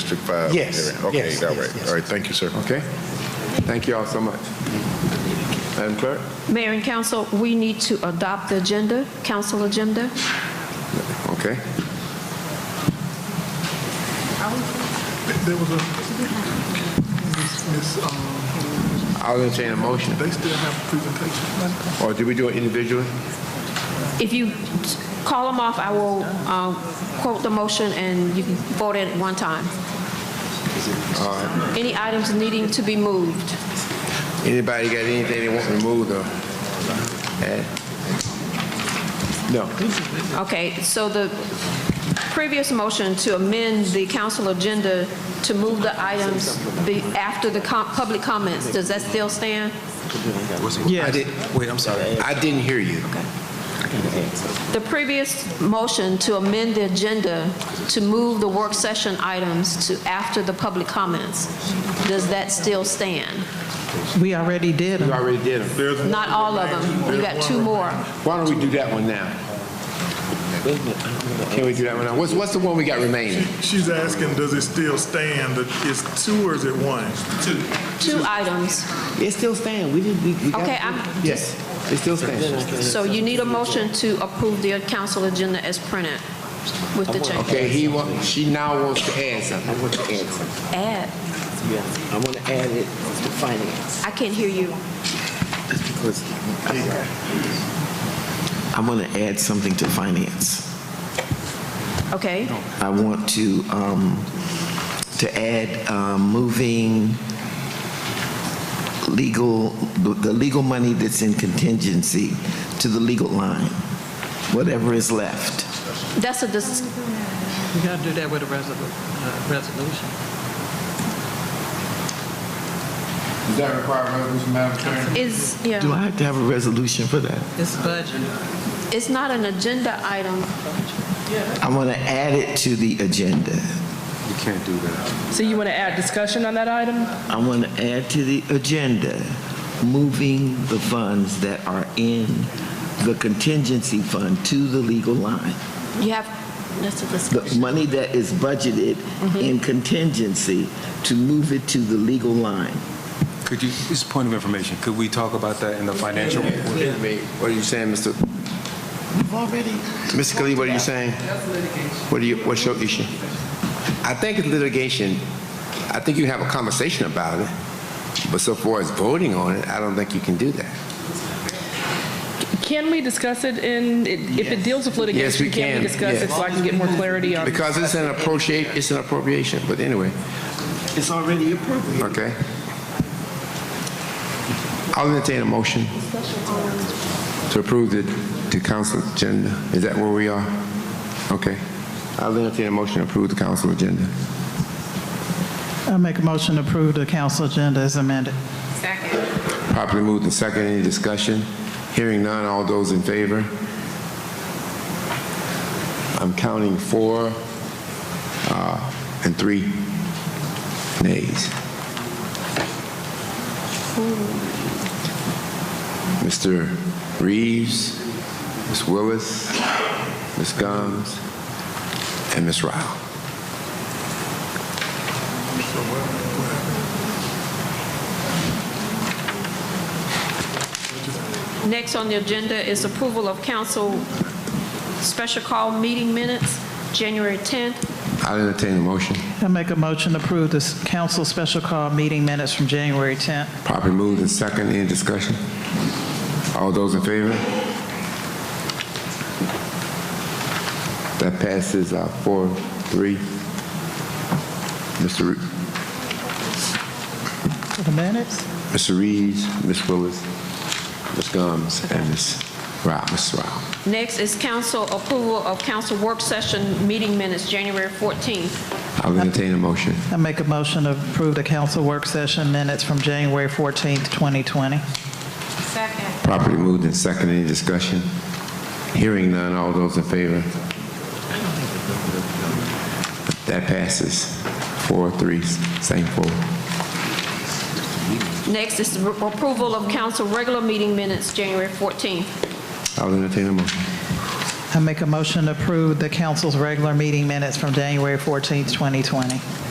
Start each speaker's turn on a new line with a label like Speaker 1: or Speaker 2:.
Speaker 1: District 5?
Speaker 2: Yes,
Speaker 1: area? Okay,
Speaker 2: yes,
Speaker 1: all
Speaker 2: yes,
Speaker 1: right,
Speaker 2: yes.
Speaker 1: all right, thank you, sir.
Speaker 3: Okay? Thank you all so much. Madam Clerk?
Speaker 4: Mayor and council, we need to adopt the agenda, council agenda.
Speaker 3: Okay.
Speaker 5: There was a, Miss, um,
Speaker 3: I'll entertain a motion.
Speaker 5: they still have presentation.
Speaker 3: Or did we do it individually?
Speaker 4: If you call them off, I will um, quote the motion and you can vote it at one time. Any items needing to be moved?
Speaker 3: Anybody got anything they want removed or? Eh? add? No.
Speaker 4: Okay, so the previous motion to amend the council agenda to move the items be- after the com- public comments, does that still stand?
Speaker 3: I did-
Speaker 6: Wait, I'm sorry.
Speaker 3: I didn't hear you.
Speaker 4: The previous motion to amend the agenda to move the work session items to after the public comments, does that still stand?
Speaker 2: We already did
Speaker 3: You
Speaker 2: them.
Speaker 3: already did them.
Speaker 5: There's one
Speaker 4: Not all of them, we got two more.
Speaker 3: Why don't we do that one now? Can we do that one now? What's, what's the one we got remaining?
Speaker 5: She's asking, does it still stand? Is two or is it one? Two.
Speaker 4: Two items.
Speaker 3: It's still staying. We did, we got.
Speaker 4: Okay, I'm-
Speaker 3: Yes, it still stands.
Speaker 4: So you need a motion to approve the council agenda as printed with the change.
Speaker 3: Okay, he wa, she now wants to add something. I want to add something.
Speaker 4: Add,
Speaker 6: I want to add it to finance.
Speaker 4: I can't hear you.
Speaker 6: I want to add something to finance.
Speaker 4: Okay,
Speaker 6: I want to, um, to add, um, moving legal, the the legal money that's in contingency to the legal line, whatever is left.
Speaker 4: that's a, dis-
Speaker 7: You gotta do that with a resolu- uh, resolution.
Speaker 3: Does that require a resolution, Madam Chair?
Speaker 4: is,
Speaker 6: Do
Speaker 4: yeah,
Speaker 6: I have to have a resolution for that?
Speaker 7: It's budget.
Speaker 4: it's not an agenda item.
Speaker 6: I want to add it to the agenda.
Speaker 3: You can't do that.
Speaker 8: So you want to add discussion on that item?
Speaker 6: I want to add to the agenda, moving the funds that are in the contingency fund to the legal line.
Speaker 4: You have, that's a
Speaker 6: The
Speaker 4: discussion.
Speaker 6: money that is budgeted in contingency, to move it to the legal line.
Speaker 9: Could you, just a point of information, could we talk about that in the financial report?
Speaker 3: What are you saying, Mr.? We've already. Mr. Khalid, what are you saying? That's litigation. What do you, what's your issue? I think it's litigation. I think you have a conversation about it, but so far as voting on it, I don't think you can do that.
Speaker 8: Can we discuss it in, if it deals with
Speaker 3: Yes, we
Speaker 8: litigation, can
Speaker 3: can,
Speaker 8: we discuss it
Speaker 3: yeah.
Speaker 8: so I can get more clarity on?
Speaker 3: Because it's an appropriate, it's an appropriation, but anyway,
Speaker 6: It's already appropriate.
Speaker 3: okay? I'll entertain a motion to approve the, the council agenda. Is that where we are? Okay. I'll entertain a motion to approve the council agenda.
Speaker 2: I make a motion to approve the council agenda as amended.
Speaker 3: Properly moved and second, any discussion? Hearing none, all those in favor? I'm counting four uh, and three nays. Mr. Reeves, Ms. Willis, Ms. Gomes, and Ms. Ryle.
Speaker 4: Next on the agenda is approval of council special call meeting minutes, January 10th.
Speaker 3: I'll entertain a motion.
Speaker 2: I make a motion to approve this council special call meeting minutes from January 10th.
Speaker 3: Properly moved and second, any discussion? All those in favor? That passes uh, four, three. Mr. Re-
Speaker 2: For the minutes?
Speaker 3: Mr. Reeves, Ms. Willis, Ms. Gomes, and Ms. Rao, Ms. Rao.
Speaker 4: Next is council approval of council work session meeting minutes, January 14th.
Speaker 3: I'll entertain a motion.
Speaker 2: I make a motion to approve the council work session minutes from January 14th, 2020.
Speaker 4: Second.
Speaker 3: Properly moved and second, any discussion? Hearing none, all those in favor? That passes four, three, same four.
Speaker 4: Next is approval of council regular meeting minutes, January 14th.
Speaker 3: I'll entertain a motion.
Speaker 2: I make a motion to approve the council's regular meeting minutes from January 14th, 2020.